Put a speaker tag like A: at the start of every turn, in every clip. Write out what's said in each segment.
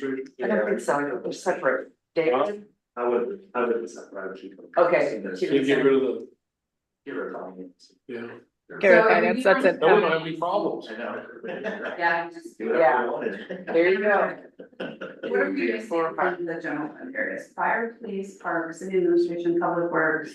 A: retreat?
B: I don't think so, I think they're separate. David,
A: I would, I would decide, I would keep them.
B: Okay.
C: You get rid of the,
A: Give her a call.
C: yeah,
D: So,
E: Garrett
D: I mean,
E: Finance,
D: you
E: that's
D: don't-
E: it.
C: that wouldn't have any problems.
A: I know.
D: Yeah, just-
A: Do whatever you wanted.
B: there you go.
D: What are we using
B: Four or
D: for
B: five.
D: the general fund areas, fire, police, parks, city administration, public works?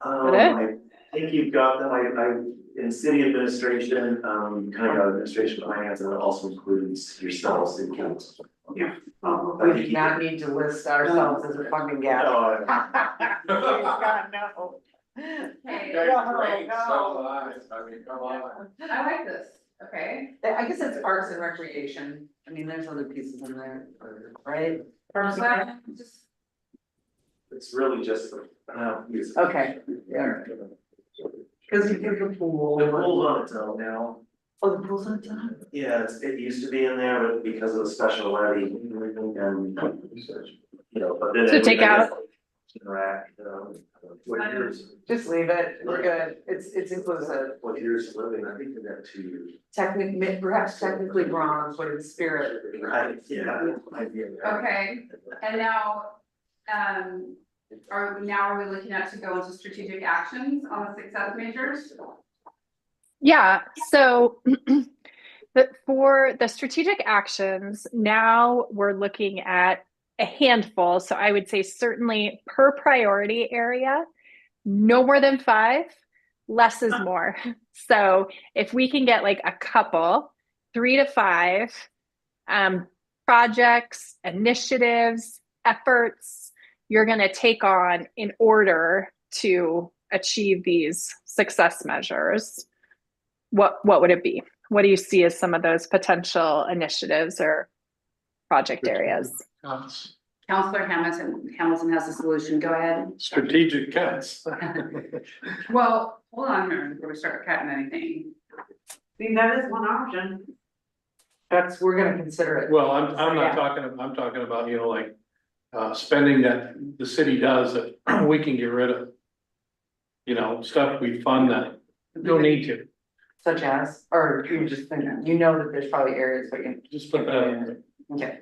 A: Um,
E: That
A: I think you've got them, I, I, in city administration, um, kind of administration finance, and it also includes yourselves and council.
D: Yeah.
B: We do not need to list ourselves as a funding gap.
A: No, I-
B: No.
D: Hey,
B: Yeah, great, no. so
C: I mean, come on.
D: I like this, okay,
B: I guess it's parks and recreation, I mean, there's other pieces in there, right?
D: well, just,
A: It's really just, uh, use.
B: Okay, yeah. Cause you think the pool.
A: The pool's on its own now,
B: Oh, the pool's on top.
A: yeah, it's, it used to be in there, but because of the special levy and, you know, but then.
E: So
A: it-
E: take out-
A: Rack, you know. What years,
B: Just leave it, we're good, Um, it's, it's inclusive.
A: what years of living, I think we got two years.
B: Technically, perhaps technically bronze, but in spirit.
A: Right, yeah, I get that.
D: okay, and now, um. Are, we now are we looking at to go into strategic actions on the success measures?
E: Yeah, so the, for the strategic actions, now we're looking at a handful. So I would say certainly per priority area, no more than five, less is more. So if we can get like a couple, three to five um, projects, initiatives, efforts you're going to take on in order to achieve these success measures what what would it be? What do you see as some of those potential initiatives or project areas?
C: Cuts,
D: Counselor Hamilton, Hamilton has a solution, go ahead.
C: strategic cuts.
D: Well, hold on here before we start cutting anything. I mean, that is one option.
B: That's, we're gonna consider it.
C: Well, I'm, I'm
B: Yeah.
C: not talking, I'm talking about, you know, like, uh, spending that the city does that we can get rid of. You know, stuff we fund that, don't need to,
B: Such as, or you just think, you know that there's probably areas where you,
C: just put that in there.
B: okay,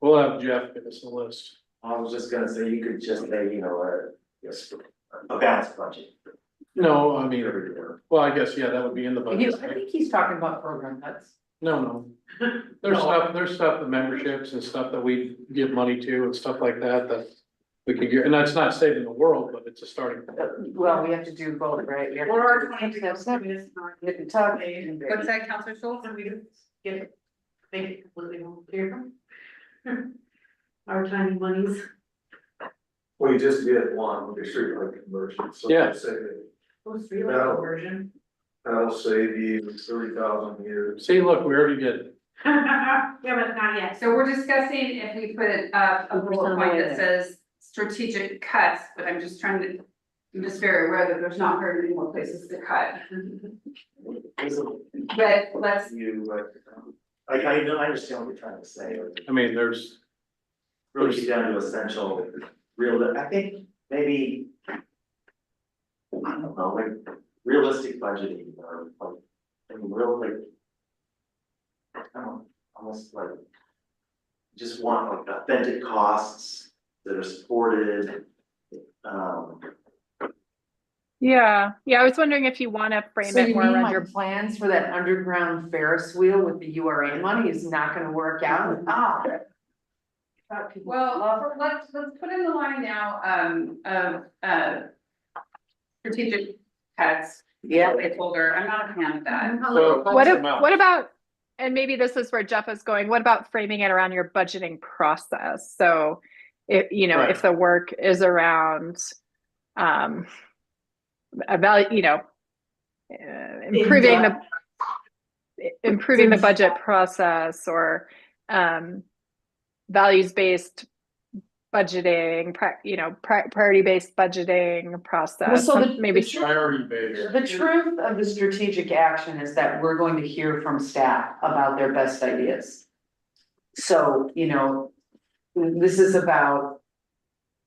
C: We'll have Jeff give us a list.
A: I was just gonna say, you could just say, you know, a, yes, a balanced budget.
C: No, I mean,
A: Everywhere.
C: well, I guess, yeah, that would be in the
B: You-
C: budget.
B: I think he's talking about program cuts.
C: No, no. There's stuff, there's stuff, the memberships and stuff that we give money to and stuff like that, that we could get, and that's not saving the world, but it's a starting. point.
B: Uh, Well, we have to do both, right? We have to
D: Or
B: do-
D: twenty
B: That's not-
D: percent is not.
B: Hit and tuck, and-
D: What's that, Counselor Schultz?
F: And we just get, it- make it completely unclear. Our tiny monies,
A: Well, you just did one, with the streetlight conversion, so.
C: Yeah.
A: Say that,
F: what's real
A: No.
F: version?
A: that'll save you thirty thousand years.
C: See, look, we already did it.
F: Yeah, but not yet.
D: So we're discussing if we put up a bullet point that
B: Percentile.
D: says strategic cuts, but I'm just trying to. I'm just very aware that there's not very many more places to cut, but let's,
A: You, uh, I, I know, I understand what you're trying to say, or
C: I mean, there's,
A: really get down to essential, real, I think maybe. I don't know, like realistic budgeting or like, I mean, real like. I don't know, almost like. Just want like authentic costs that are supported, um.
E: Yeah, yeah. I was wondering if you want to frame
B: So
E: it
B: you
E: more
B: mean
E: around
B: my
E: your.
B: plans for that underground Ferris wheel with the U R A money is not gonna work out? Ah. Thought people love
D: well, let's, let's put in the line now, um, of, uh. Strategic cuts,
B: it. Yeah.
D: placeholder, I'm not a fan of that.
C: so.
E: What if,
C: amount.
E: what about? And maybe this is where Jeff is going. What about framing it around your budgeting process? So, if you know, if
C: Right.
E: the work is around, um, about you know, uh, improving the improving the budget process or um, values-based budgeting, prac- you know, pri- priority-based budgeting process,
B: so
E: some-
B: the-
E: maybe.
B: the
C: Priority based.
B: The truth of the strategic action is that we're going to hear from staff about their best ideas. So, you know, this is about,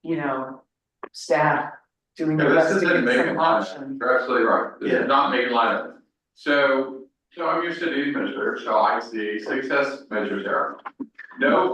B: you know, staff doing the
G: Yeah, this
B: best
G: isn't
B: to get
G: making
B: some
G: line
B: option.
G: items, you're absolutely right, this
A: Yeah.
G: is not making line items. So, so I'm your city administrator, so I see success measures there. No